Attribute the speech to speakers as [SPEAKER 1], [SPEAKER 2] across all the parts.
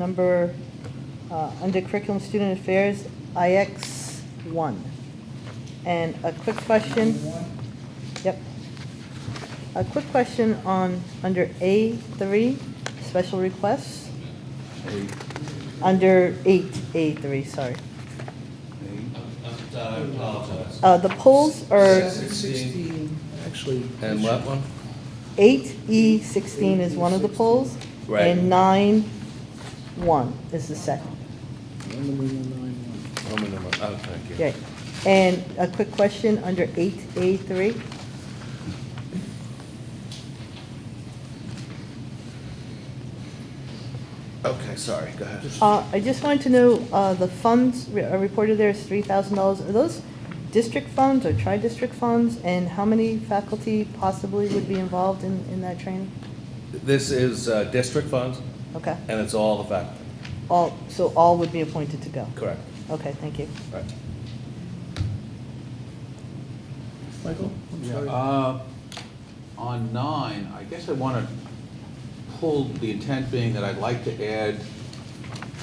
[SPEAKER 1] number, uh, under curriculum student affairs, IX one. And a quick question. Yep. A quick question on, under A three, special requests,
[SPEAKER 2] Eight,
[SPEAKER 1] under eight, A three, sorry.
[SPEAKER 2] eight.
[SPEAKER 3] I apologize.
[SPEAKER 1] Uh, the polls are
[SPEAKER 4] Sixteen, actually.
[SPEAKER 2] And what one?
[SPEAKER 1] Eight E sixteen is one of the polls.
[SPEAKER 2] Right.
[SPEAKER 1] And nine one is the second.
[SPEAKER 4] Number nine one.
[SPEAKER 2] Roman number, oh, thank you.
[SPEAKER 1] Okay. And a quick question under eight A three.
[SPEAKER 2] Okay, sorry, go ahead.
[SPEAKER 1] Uh, I just wanted to know, uh, the funds re- are reported there is three thousand dollars. Are those district funds or tri-district funds? And how many faculty possibly would be involved in, in that training?
[SPEAKER 2] This is uh, district funds,
[SPEAKER 1] Okay.
[SPEAKER 2] and it's all the faculty.
[SPEAKER 1] All, so all would be appointed to go?
[SPEAKER 2] Correct.
[SPEAKER 1] Okay, thank you.
[SPEAKER 2] Right.
[SPEAKER 4] Michael, I'm
[SPEAKER 3] Yeah,
[SPEAKER 4] sorry.
[SPEAKER 3] uh, On nine, I guess I want to pull, the intent being that I'd like to add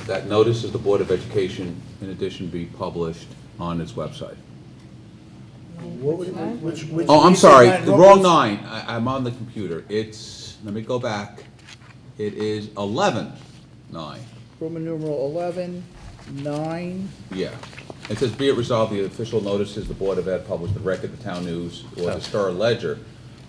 [SPEAKER 3] that notice of the Board of Education, in addition, be published on its website.
[SPEAKER 4] What would it- which- which-
[SPEAKER 3] Oh, I'm
[SPEAKER 4] you said
[SPEAKER 3] sorry,
[SPEAKER 4] nine,
[SPEAKER 3] the
[SPEAKER 4] what
[SPEAKER 3] wrong
[SPEAKER 4] was-
[SPEAKER 3] nine. I, I'm on the computer. It's, let me go back. It is eleven nine.
[SPEAKER 4] Roman numeral eleven, nine,
[SPEAKER 3] Yeah. It says, "Be it resolved, the official notices the Board of Ed published the record, the town news, or the Star Ledger."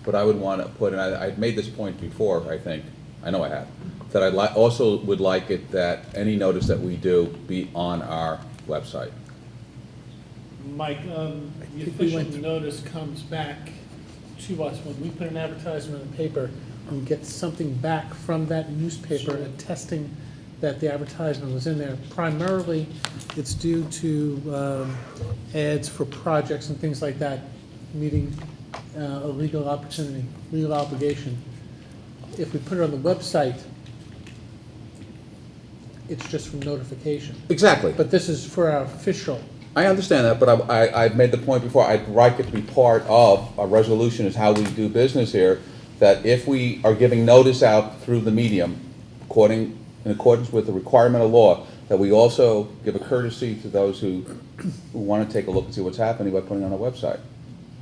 [SPEAKER 3] But I would want to put, and I, I've made this point before, I think, I know I have, that I'd like, also would like it that any notice that we do be on our website.
[SPEAKER 5] Mike, um, the
[SPEAKER 4] think we
[SPEAKER 5] official
[SPEAKER 4] went through-
[SPEAKER 5] notice comes back to us when we put an advertisement in the paper. We get something back from that newspaper attesting that the advertisement was in there. Primarily, it's due to um, ads for projects and things like that, meeting uh, a legal opportunity, legal obligation. If we put it on the website, it's just from notification.
[SPEAKER 3] Exactly.
[SPEAKER 5] But this is for our official
[SPEAKER 3] I understand that, but I, I, I've made the point before, I'd like it to be part of a resolution is how we do business here, that if we are giving notice out through the medium, according, in accordance with the requirement of law, that we also give a courtesy to those who, who wanna take a look and see what's happening by putting it on a website.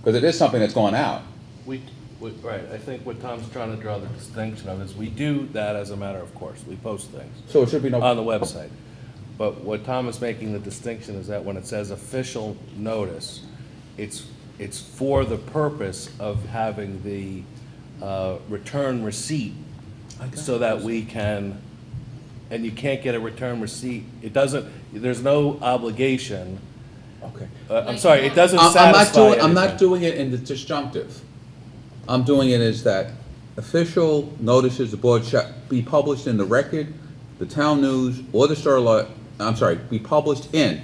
[SPEAKER 3] Cause it is something that's gone out.
[SPEAKER 2] We, we- right, I think what Tom's trying to draw the distinction of is we do that as a matter of course. We post things
[SPEAKER 3] So it should be
[SPEAKER 2] on
[SPEAKER 3] no,
[SPEAKER 2] Uh, the website. But what Tom is making the distinction is that when it says official notice, it's, it's for the purpose of having the uh, return receipt so that we can, and you can't get a return receipt. It doesn't, there's no obligation.
[SPEAKER 3] okay.
[SPEAKER 2] Uh, I'm sorry, it doesn't
[SPEAKER 3] I'm, I'm not
[SPEAKER 2] satisfy
[SPEAKER 3] doing, I'm not
[SPEAKER 2] anything.
[SPEAKER 3] doing it in the disjunctive. I'm doing it as that official notices the board shall be published in the record, the town news, or the Star Lo- I'm sorry, be published in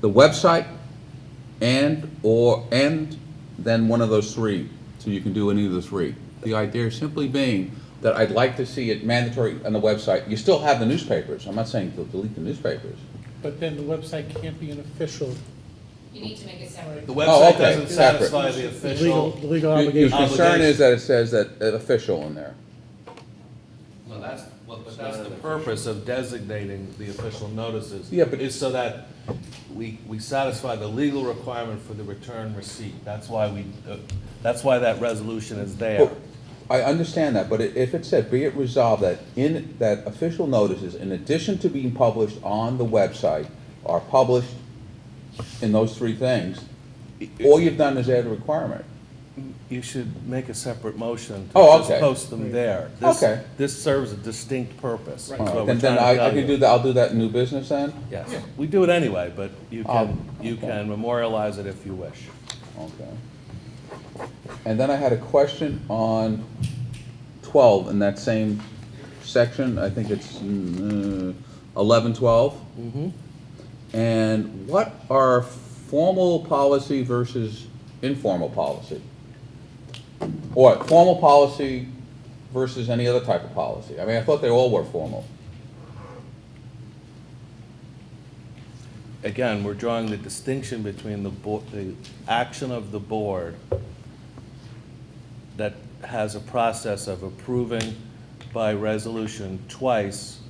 [SPEAKER 3] the website and, or, and then one of those three. So you can do any of the three. The idea simply being that I'd like to see it mandatory on the website. You still have the newspapers. I'm not saying to delete the newspapers.
[SPEAKER 5] But then the website can't be an official
[SPEAKER 6] You need to make it separate.
[SPEAKER 2] The
[SPEAKER 3] Oh,
[SPEAKER 2] website
[SPEAKER 3] okay,
[SPEAKER 2] doesn't
[SPEAKER 3] separate.
[SPEAKER 2] satisfy the
[SPEAKER 5] legal,
[SPEAKER 2] official.
[SPEAKER 5] legal
[SPEAKER 3] Your your
[SPEAKER 5] obligation.
[SPEAKER 3] concern is that it says that uh, official in there.
[SPEAKER 2] Well, that's, but that's the purpose of designating the official notices.
[SPEAKER 3] Yeah, but-
[SPEAKER 2] Is so that we, we satisfy the legal requirement for the return receipt. That's why we, uh, that's why that resolution is there.
[SPEAKER 3] Well, I understand that, but i- if it said, be it resolved that in, that official notices, in addition to being published on the website, are published in those three things, all you've done is add a requirement.
[SPEAKER 2] You should make a separate motion to
[SPEAKER 3] Oh,
[SPEAKER 2] just
[SPEAKER 3] okay.
[SPEAKER 2] post them there. This-
[SPEAKER 3] Okay.
[SPEAKER 2] This serves a distinct purpose. That's what we're
[SPEAKER 3] Uh, Then,
[SPEAKER 2] trying
[SPEAKER 3] then
[SPEAKER 2] to
[SPEAKER 3] I, I
[SPEAKER 2] tell
[SPEAKER 3] can
[SPEAKER 2] you.
[SPEAKER 3] do that, I'll do that in new business then?
[SPEAKER 2] Yes, we do it anyway, but you can,
[SPEAKER 3] Um,
[SPEAKER 2] you
[SPEAKER 3] okay.
[SPEAKER 2] can memorialize it if you wish.
[SPEAKER 3] Okay. And then I had a question on twelve, in that same section, I think it's mm, uh, eleven, twelve. And what are formal policy versus informal policy? Or formal policy versus any other type of policy? I mean, I thought they all were formal.
[SPEAKER 2] again, we're drawing the distinction between the bo, the action of the board that has a process of approving by resolution twice